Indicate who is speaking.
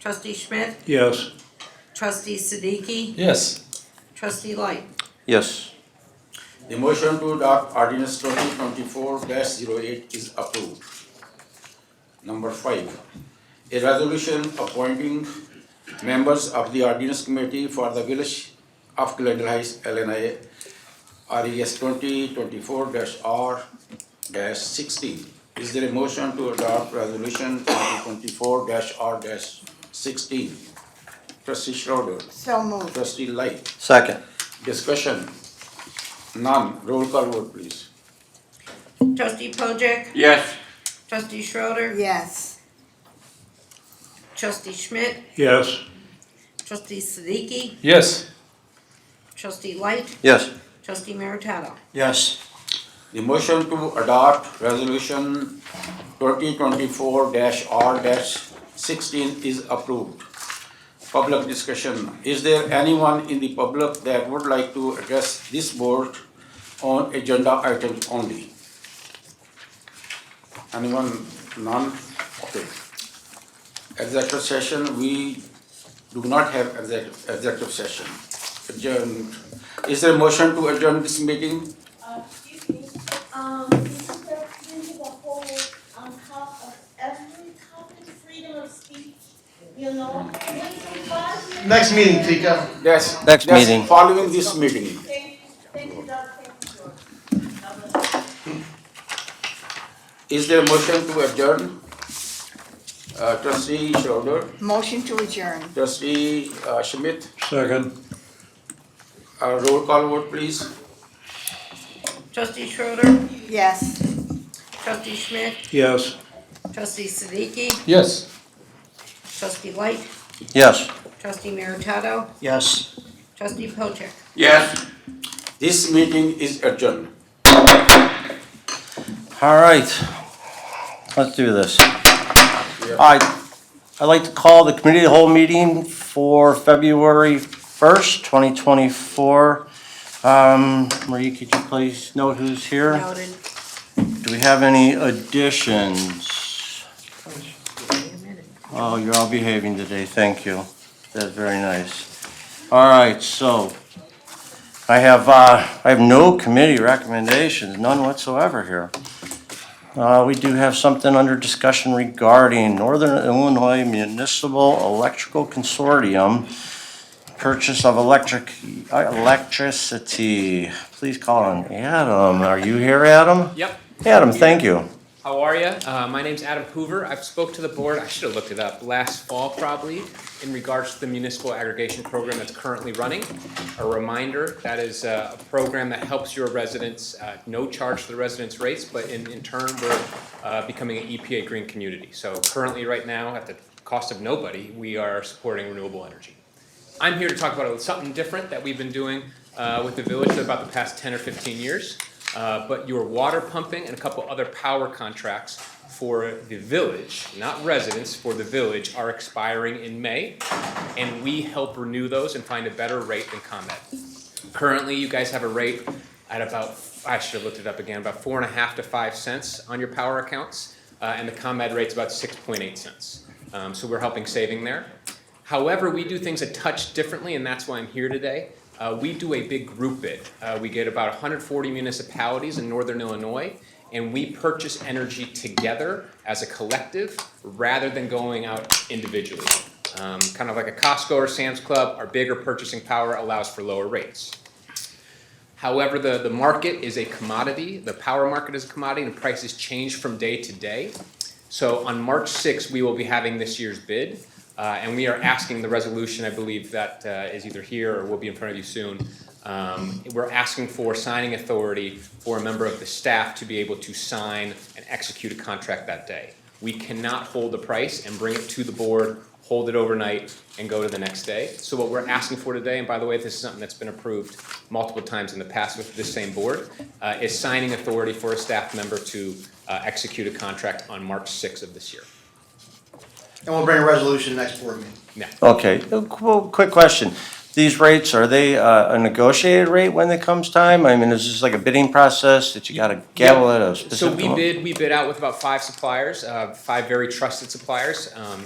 Speaker 1: Trustee Schmidt,
Speaker 2: Yes.
Speaker 1: trustee Siddiqui,
Speaker 3: Yes.
Speaker 1: trustee Light.
Speaker 4: Yes.
Speaker 5: The motion to adopt ordinance twenty twenty-four 8 is approved. Number five, a resolution appointing members of the ordinance committee for the village of Glendale Heights, LNI, RES E twenty twenty-four R sixteen. Is there a motion to adopt resolution twenty twenty-four R sixteen? Trustee Schroder,
Speaker 1: So moved.
Speaker 5: trustee Light,
Speaker 4: Second.
Speaker 5: Discussion? None. Roll call vote, please.
Speaker 1: Trustee Pojek,
Speaker 6: yes,
Speaker 1: trustee Schroeder,
Speaker 7: yes,
Speaker 1: trustee Schmidt,
Speaker 2: Yes.
Speaker 1: trustee Siddiqui,
Speaker 3: Yes.
Speaker 1: trustee Light,
Speaker 4: Yes.
Speaker 1: trustee Meritato.
Speaker 4: Yes.
Speaker 5: The motion to adopt resolution twenty twenty-four R sixteen is approved. Public discussion. Is there anyone in the public that would like to address this board on agenda items only? Anyone? None? Okay. Executive session, we do not have exec- executive session. Adjourned. Is there a motion to adjourn this meeting?
Speaker 8: Uh, excuse me, um, Mr. President, the whole, on top of every topic, freedom of speech, you know?
Speaker 9: Next meeting, Tika.
Speaker 5: Yes.
Speaker 4: Next
Speaker 5: yes,
Speaker 4: meeting.
Speaker 5: Following this meeting.
Speaker 8: Thank you, thank you, Doug, thank you, George.
Speaker 5: Is there a motion to adjourn? Uh, trustee Schroeder,
Speaker 7: motion to adjourn.
Speaker 5: trustee uh, Schmidt,
Speaker 2: Second.
Speaker 5: uh, roll call vote please.
Speaker 1: Trustee Schroeder,
Speaker 7: yes.
Speaker 1: trustee Schmidt,
Speaker 2: Yes.
Speaker 1: trustee Siddiqui,
Speaker 3: Yes.
Speaker 1: trustee Light,
Speaker 4: Yes.
Speaker 1: trustee Meritato,
Speaker 4: Yes.
Speaker 1: trustee Pojek.
Speaker 6: yes.
Speaker 5: This meeting is adjourned.
Speaker 4: All right, let's do this. All right, I'd like to call the committee of the whole meeting for February 1st, 2024. Um, Marie, could you please note who's here?
Speaker 1: Noted.
Speaker 4: Do we have any additions? Oh, you're all behaving today, thank you. That's very nice. All right, so I have, uh, I have no committee recommendations, none whatsoever here. Uh, we do have something under discussion regarding Northern Illinois Municipal Electrical Consortium purchase of electric, electricity. Please call on Adam. Are you here, Adam?
Speaker 10: Yep.
Speaker 4: Adam, thank you.
Speaker 10: How are you? Uh, my name's Adam Hoover. I've spoke to the board. I should have looked it up last fall, probably, in regards to the municipal aggregation program that's currently running. A reminder that is uh, a program that helps your residents, uh, no charge to the residents' rates, but in, in turn, we're uh, becoming an EPA green community. So currently, right now, at the cost of nobody, we are supporting renewable energy. I'm here to talk about something different that we've been doing uh, with the village for about the past 10 or 15 years. Uh, But your water pumping and a couple other power contracts for the village, not residents, for the village are expiring in May. And we help renew those and find a better rate than ComEd. Currently, you guys have a rate at about, I should have looked it up again, about four and a half to five cents on your power accounts. uh, And the ComEd rate's about 6.8 cents. Um, So we're helping saving there. However, we do things a touch differently, and that's why I'm here today. Uh, we do a big group bid. Uh, we get about 140 municipalities in northern Illinois, and we purchase energy together as a collective rather than going out individually. Um, kind of like a Costco or Sam's Club, our bigger purchasing power allows for lower rates. However, the, the market is a commodity, the power market is a commodity, and prices change from day to day. So on March 6th, we will be having this year's bid, uh, and we are asking the resolution, I believe, that uh, is either here or will be in front of you soon. Um, We're asking for signing authority for a member of the staff to be able to sign and execute a contract that day. We cannot hold the price and bring it to the board hold it overnight, and go to the next day. So what we're asking for today, and by the way, this is something that's been approved multiple times in the past with this same board, uh, is signing authority for a staff member to uh, execute a contract on March 6th of this year.
Speaker 9: And we'll bring a resolution next board meeting.
Speaker 10: Now,
Speaker 4: Okay, uh, qu- quick question. These rates, are they uh, a negotiated rate when it comes time? I mean, is this like a bidding process that you gotta gavel at a
Speaker 10: So
Speaker 4: specific?
Speaker 10: we
Speaker 4: amount?
Speaker 10: bid, we bid out with about five suppliers, uh, five very trusted suppliers. Um,